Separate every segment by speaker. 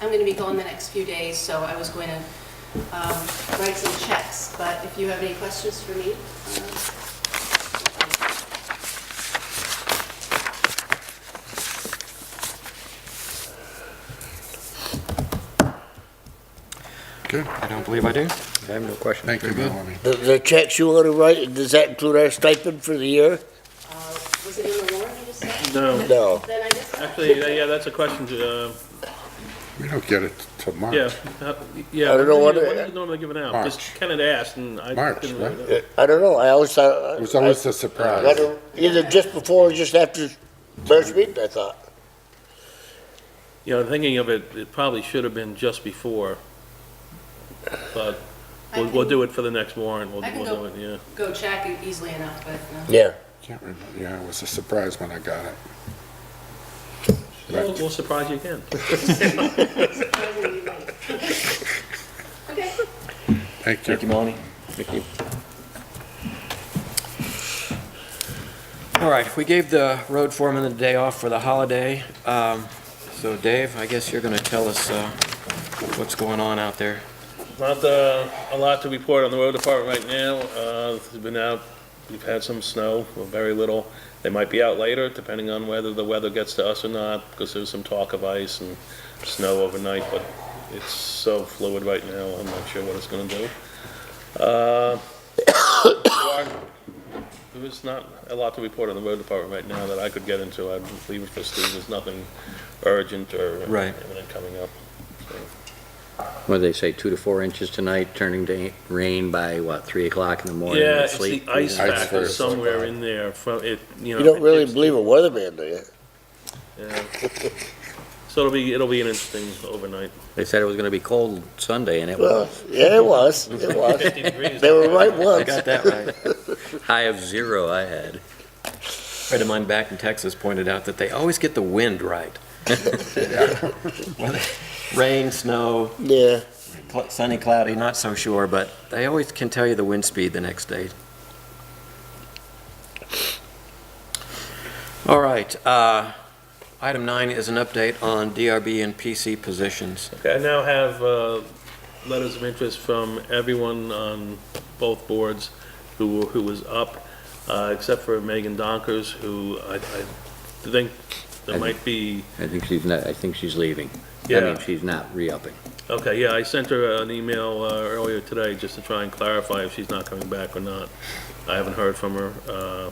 Speaker 1: I'm going to be gone the next few days, so I was going to um, write some checks, but if you have any questions for me, uh, um,
Speaker 2: Good.
Speaker 3: I don't believe I do.
Speaker 4: I have no question.
Speaker 2: Thank you, Melanie.
Speaker 5: The, the checks you want to write, does that include our stipend for the year?
Speaker 1: uh, was it in the warrant you just said?
Speaker 6: No,
Speaker 5: No.
Speaker 1: Then I just,
Speaker 6: actually, that- yeah, that's a question to, uh,
Speaker 2: We don't get it till March.
Speaker 6: yeah, uh, yeah.
Speaker 5: I don't know
Speaker 6: when
Speaker 5: what-
Speaker 6: do you- when do you normally given out?
Speaker 2: March.
Speaker 6: Just Kenneth asked and I.
Speaker 2: March,
Speaker 6: didn't
Speaker 2: right?
Speaker 6: really know.
Speaker 5: Uh, I don't know, I always thought.
Speaker 2: It was always
Speaker 4: Uh,
Speaker 2: a
Speaker 5: I-
Speaker 2: surprise.
Speaker 5: I don't- Either just before or just after last meeting, I thought.
Speaker 6: You know, thinking of it, it probably should have been just before. But
Speaker 1: I
Speaker 6: we'll, we'll
Speaker 1: can-
Speaker 6: do it for the next warrant. We'll,
Speaker 1: I can
Speaker 6: we'll do
Speaker 1: go-
Speaker 6: it, yeah.
Speaker 1: Go check it easily enough, but no.
Speaker 5: Yeah.
Speaker 2: Can't remember. Yeah, it was a surprise when I got it. Right.
Speaker 6: We'll, we'll surprise you again.
Speaker 1: uh, surprisingly late. Okay.
Speaker 2: Thank you.
Speaker 4: Thank you, Melanie. Thank you.
Speaker 3: All right, we gave the road foreman the day off for the holiday. Um, So Dave, I guess you're going to tell us uh, what's going on out there.
Speaker 6: Not uh, a lot to report on the road department right now. Uh, It's been out, we've had some snow, but very little. They might be out later, depending on whether the weather gets to us or not, because there's some talk of ice and snow overnight, but it's so fluid right now, I'm not sure what it's gonna do. Uh, There's not a lot to report on the road department right now that I could get into. I'd leave it for Steve, there's nothing urgent or
Speaker 3: Right.
Speaker 6: imminent coming up.
Speaker 4: What did they say, two to four inches tonight, turning to eight- rain by, what, three o'clock in the morning?
Speaker 6: Yeah,
Speaker 4: with
Speaker 6: it's the
Speaker 4: sleet?
Speaker 6: ice
Speaker 2: Ice
Speaker 6: factor
Speaker 2: first.
Speaker 6: somewhere in there from it, you know.
Speaker 5: You don't
Speaker 6: it
Speaker 5: really
Speaker 6: takes-
Speaker 5: believe a weatherman, do you?
Speaker 6: yeah. So it'll be, it'll be an interesting overnight.
Speaker 4: They said it was gonna be cold Sunday, and it
Speaker 5: Well,
Speaker 4: was
Speaker 5: yeah, it was, it was.
Speaker 6: Fifty degrees.
Speaker 5: They were right
Speaker 3: I
Speaker 5: once.
Speaker 3: got that right.
Speaker 4: high of zero I had.
Speaker 3: Friend of mine back in Texas pointed out that they always get the wind right. Whether- Rain, snow,
Speaker 5: Yeah,
Speaker 3: cl- sunny, cloudy, not so sure, but they always can tell you the wind speed the next day. All right, uh, item nine is an update on DRB and PC positions.
Speaker 6: Okay, I now have uh, letters of interest from everyone on both boards who, were- who was up, uh, except for Megan Donkers, who I, I think there might be,
Speaker 4: I think she's not, I think she's leaving. I
Speaker 6: yeah.
Speaker 4: mean, she's not re-upping.
Speaker 6: Okay, yeah, I sent her an email uh, earlier today just to try and clarify if she's not coming back or not. I haven't heard from her, uh,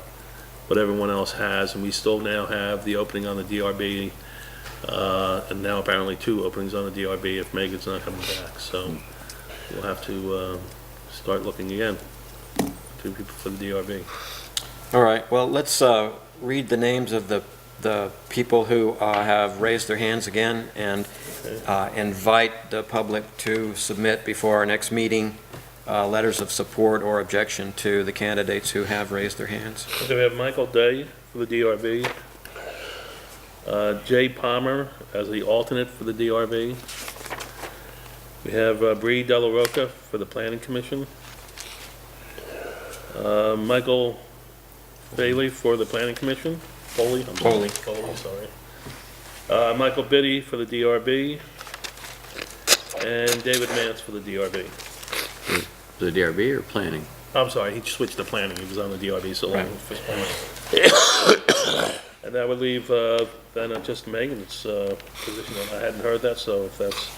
Speaker 6: but everyone else has, and we still now have the opening on the DRB, uh, and now apparently two openings on the DRB if Megan's not coming back, so we'll have to uh, start looking again, two people for the DRB.
Speaker 3: All right, well, let's uh, read the names of the, the people who uh, have raised their hands again and uh, invite the public to submit before our next meeting, uh, letters of support or objection to the candidates who have raised their hands.
Speaker 6: Okay, we have Michael Day for the DRB, uh, Jay Palmer as the alternate for the DRB. We have uh, Bree Delaroca for the Planning Commission. Uh, Michael Bailey for the Planning Commission, Foley. I'm
Speaker 3: Foley.
Speaker 6: sorry, Foley, sorry. Uh, Michael Biddy for the DRB, and David Mance for the DRB.
Speaker 4: The DRB or planning?
Speaker 6: I'm sorry, he switched to planning, he was on the DRB so long. And that would leave, uh, then uh, just Megan's uh, position, and I hadn't heard that, so if that's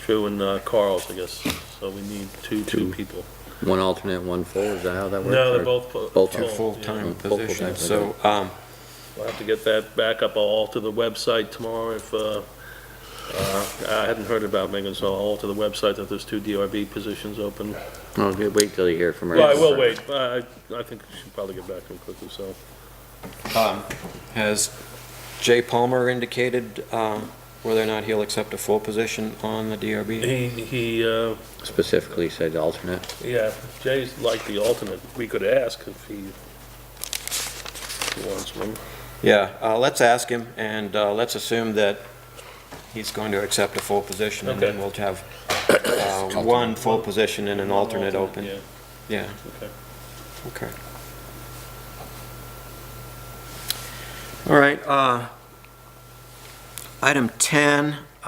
Speaker 6: true, and uh, Carl's, I guess, so we need two, two
Speaker 4: Two.
Speaker 6: people.
Speaker 4: One alternate, one full, is that how that works?
Speaker 6: No,
Speaker 4: Or-
Speaker 6: they're both. pu-
Speaker 4: Both
Speaker 6: full,
Speaker 3: Two
Speaker 4: Oh,
Speaker 3: full-time
Speaker 4: yeah. Full-time,
Speaker 3: positions,
Speaker 4: I
Speaker 3: so, um,
Speaker 6: yeah. We'll have to get that back up, I'll alter the website tomorrow if, uh, uh, I hadn't heard about Megan, so I'll alter the website that there's two DRB positions open.
Speaker 4: Oh, good, wait till you hear from her.
Speaker 6: Well, I will wait, Uh, I, I think we should probably get back to him quickly, so.
Speaker 3: um, has Jay Palmer indicated um, whether or not he'll accept a full position on the DRB?
Speaker 6: He, he, uh,
Speaker 4: Specifically said alternate.
Speaker 6: Yeah, Jay's like the alternate. We could ask if he if he wants one.
Speaker 3: Yeah, uh, let's ask him, and uh, let's assume that he's going to accept a full position, and then
Speaker 6: Okay.
Speaker 3: we'll have uh, one full position and an alternate open.
Speaker 6: Yeah,
Speaker 3: Yeah,
Speaker 6: okay.
Speaker 3: okay. All right, uh, item 10